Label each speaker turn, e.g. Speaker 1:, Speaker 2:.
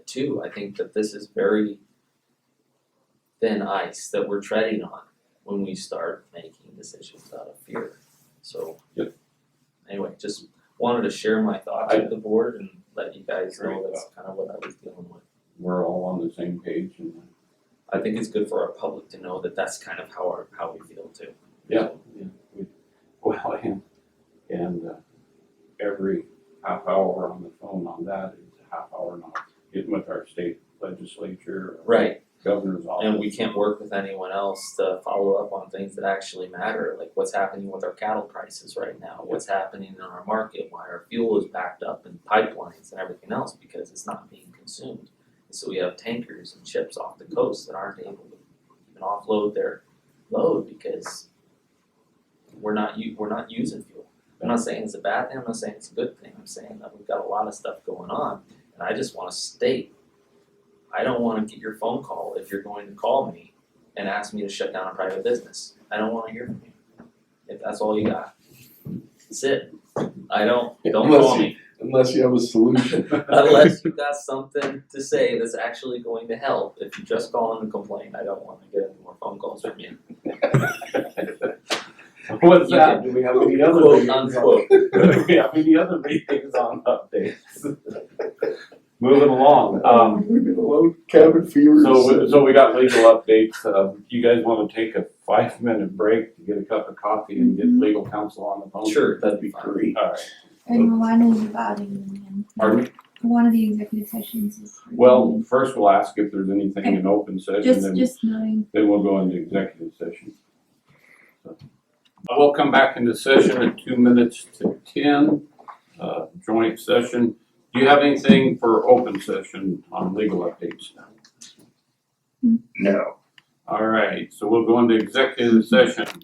Speaker 1: too, I think that this is very thin ice that we're treading on when we start making decisions out of fear, so.
Speaker 2: Yep.
Speaker 1: Anyway, just wanted to share my thoughts with the board and let you guys know
Speaker 2: Great.
Speaker 1: that's kind of what I was dealing with.
Speaker 2: We're all on the same page and
Speaker 1: I think it's good for our public to know that that's kind of how our, how we feel too.
Speaker 2: Yeah. well, and, and uh, every half hour on the phone on that is a half hour now. Getting with our state legislature,
Speaker 1: Right,
Speaker 2: governor's office.
Speaker 1: and we can't work with anyone else to follow up on things that actually matter, like what's happening with our cattle prices right now, what's happening in our market, why our fuel is backed up in pipelines and everything else because it's not being consumed. And so we have tankers and ships off the coast that aren't able to even offload their load because we're not u- we're not using fuel. I'm not saying it's a bad thing, I'm not saying it's a good thing, I'm saying that we've got a lot of stuff going on and I just wanna state I don't want to get your phone call if you're going to call me and ask me to shut down a private business. I don't want to hear from you. If that's all you got, that's it. I don't, don't call
Speaker 3: Unless
Speaker 1: me
Speaker 3: Unless you have a solution.
Speaker 1: unless you got something to say that's actually going to help. If you just call in and complain, I don't want to get any more phone calls from you.
Speaker 2: What's
Speaker 1: You
Speaker 2: that? Do we have any other
Speaker 1: Quote
Speaker 2: meetings on-
Speaker 1: unquote.
Speaker 2: Do we have any other meetings on updates? Moving along, um,
Speaker 3: We've been alone, cabin fever.
Speaker 2: So, we- so we got legal updates, uh, you guys wanna take a five minute break to get a cup of coffee and get legal counsel on the phone?
Speaker 1: Sure, that'd be fine.
Speaker 3: Great.
Speaker 2: Alright,
Speaker 4: And one is about a union.
Speaker 2: pardon me,
Speaker 4: One of the executive sessions is. for
Speaker 2: well,
Speaker 4: union.
Speaker 2: first we'll ask if there's anything in open session,
Speaker 4: Just,
Speaker 2: then,
Speaker 4: just knowing.
Speaker 2: then we'll go into executive session. So, uh, We'll come back into session at two minutes to ten, uh, joint session. Do you have anything for open session on legal updates?
Speaker 3: No.
Speaker 2: Alright, so we'll go into executive session.